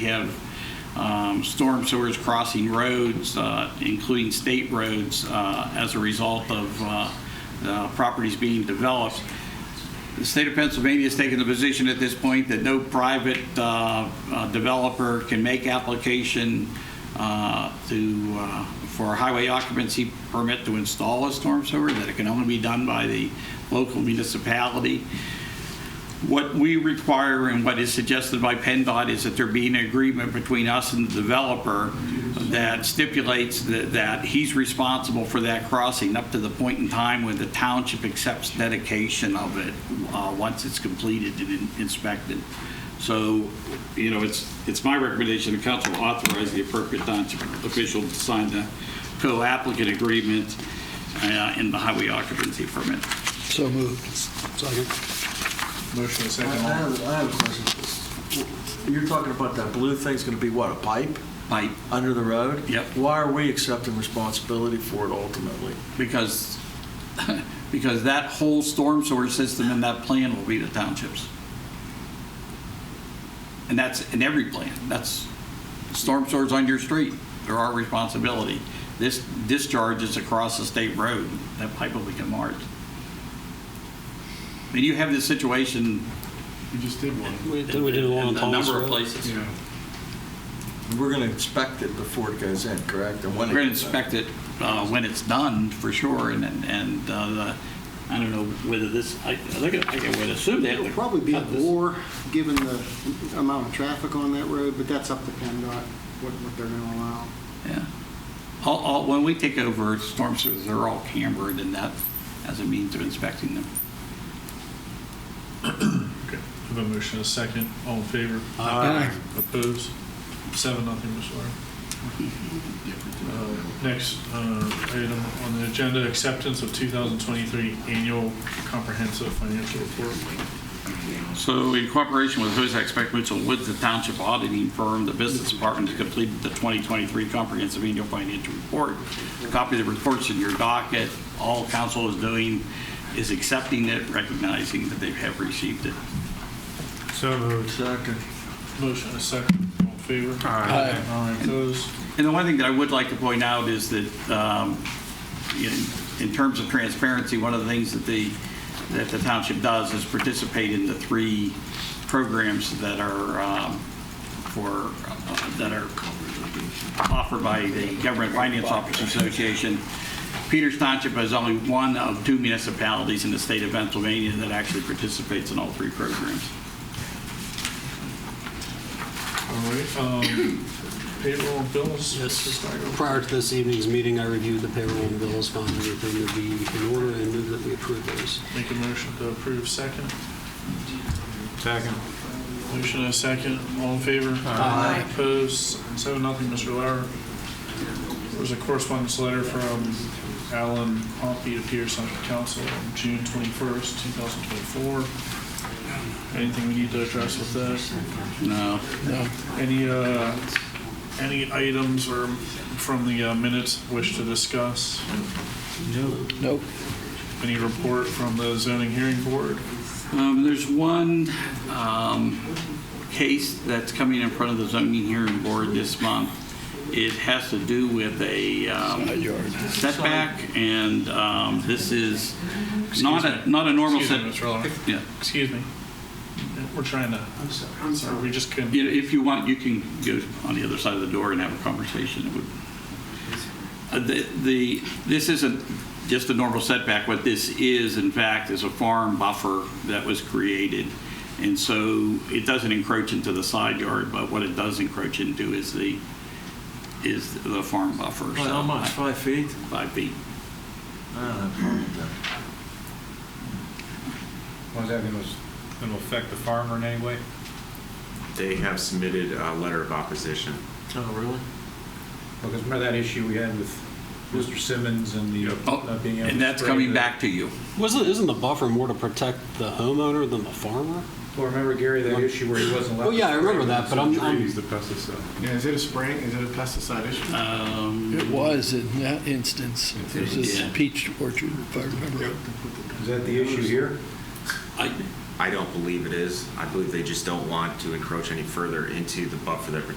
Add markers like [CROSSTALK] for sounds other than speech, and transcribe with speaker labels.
Speaker 1: We have um, storm sewers crossing roads, uh, including state roads, uh, as a result of uh, uh, properties being developed. The state of Pennsylvania has taken the position at this point that no private uh, uh, developer can make application uh, to, uh, for a highway occupancy permit to install a storm sewer, that it can only be done by the local municipality. What we require and what is suggested by PennDOT is that there be an agreement between us and the developer that stipulates that, that he's responsible for that crossing up to the point in time when the township accepts dedication of it, uh, once it's completed and in- inspected. So, you know, it's, it's my recommendation the council authorize the appropriate township official to sign the co-applicant agreement uh, in the highway occupancy permit.
Speaker 2: So moved. Second.
Speaker 3: Motion is
Speaker 4: I I
Speaker 3: second. all.
Speaker 4: have, I have a question. You're talking about that blue thing's going to be what, a pipe
Speaker 1: Mike?
Speaker 4: under the road?
Speaker 1: Yep.
Speaker 4: Why are we accepting responsibility for it ultimately?
Speaker 1: because, [LAUGHS] because that whole storm sewer system in that plan will be the townships. And that's in every plan. That's, storm sewers on your street, they're our responsibility. This discharge is across the state road, that pipe will become ours. And you have this situation
Speaker 3: We just did one.
Speaker 2: We did
Speaker 1: in
Speaker 2: we did a long
Speaker 1: in a
Speaker 2: time.
Speaker 1: number of places.
Speaker 3: Yeah.
Speaker 4: We're going to inspect it before it goes in, correct? And
Speaker 1: We're
Speaker 4: when it
Speaker 1: going to
Speaker 4: goes in.
Speaker 1: inspect it uh, when it's done, for sure, and, and- and, uh, the- I don't know whether this, I, I think I think I would assume that.
Speaker 5: It would probably be a war, given the amount of traffic on that road, but that's up to PennDOT, what, what they're gonna allow.
Speaker 1: Yeah. All, all, when we take over storm sewers, they're all cambered and that as a means of inspecting them.
Speaker 3: Okay. I have a motion is second. All in favor?
Speaker 2: Aye.
Speaker 3: Opposed? Seven, nothing, Mr. Lawyer. Uh, Next uh, item on the agenda, acceptance of 2023 annual comprehensive financial report.
Speaker 1: So in cooperation with Hosek Beck Mitchell Woods, the township auditing firm, the business department has completed the 2023 comprehensive annual financial report. A Copy of the reports in your docket. All council is doing is accepting it, recognizing that they have received it.
Speaker 3: So moved.
Speaker 4: Second.
Speaker 3: Motion is second. All in favor?
Speaker 2: Aye.
Speaker 3: Aye. Opposed?
Speaker 1: And the one thing that I would like to point out is that, um, in in terms of transparency, one of the things that the, that the township does is participate in the three programs that are um, for, uh, that are offered by the Government Finance Officers Association. Peters Township is only one of two municipalities in the state of Pennsylvania that actually participates in all three programs.
Speaker 3: All right. um, Payroll and bills?
Speaker 2: Yes.
Speaker 3: Mr. Steiger.
Speaker 2: Prior to this evening's meeting, I reviewed the payroll and bills, found everything to be in order, and moved that we approve those.
Speaker 3: Make a motion to approve second. Second. Motion and a second, all in favor? Aye. Opposed, seven, nothing, Mr. Lauer. There was a correspondence letter from Alan Pompey to Pierce on Council on June 21st, 2024. Anything we need to address with this?
Speaker 1: No,
Speaker 3: Any, uh, any items or from the uh, minutes wish to discuss?
Speaker 2: Nope.
Speaker 3: Any report from the zoning hearing board?
Speaker 1: Um, There's one um, case that's coming in front of the zoning hearing board this month. It has to do with a um, setback, and um, this is not a, not a normal
Speaker 3: Excuse me,
Speaker 1: setback.
Speaker 3: Mr. Lauer.
Speaker 1: Yeah,
Speaker 3: Excuse me. We're trying to,
Speaker 5: I'm sorry, I'm
Speaker 3: sorry,
Speaker 5: sorry.
Speaker 3: we just couldn't.
Speaker 1: You know, if you want, you can go on the other side of the door and have a conversation. It would- Uh, The, the- this isn't just a normal setback. What this is, in fact, is a farm buffer that was created. And so it doesn't encroach into the side yard, but what it does encroach into is the, is the farm buffer.
Speaker 4: By How
Speaker 1: So,
Speaker 4: much, five feet?
Speaker 1: Five feet.
Speaker 4: I don't have a problem with that.
Speaker 6: Was that going to affect the farmer in any way?
Speaker 7: They have submitted a letter of opposition.
Speaker 4: Oh, really?
Speaker 6: Because remember that issue we had with Mr. Simmons and the
Speaker 1: Oh,
Speaker 6: not being able to.
Speaker 1: And that's
Speaker 6: spray
Speaker 1: coming
Speaker 6: the-
Speaker 1: back to you.
Speaker 2: Wasn't, isn't the buffer more to protect the homeowner than the farmer?
Speaker 6: Well, remember Gary, that issue where he wasn't allowed.
Speaker 2: Well, yeah, I remember that, but I'm- I'm-
Speaker 6: He's the pesticide.
Speaker 3: Yeah, is it a spraying, is it a pesticide issue?
Speaker 1: Um,
Speaker 8: It was in that instance. It was
Speaker 1: Yeah.
Speaker 8: a peach orchard, if I remember.
Speaker 6: Is that the issue here?
Speaker 1: I,
Speaker 7: I don't believe it is. I believe they just don't want to encroach any further into the buffer that protects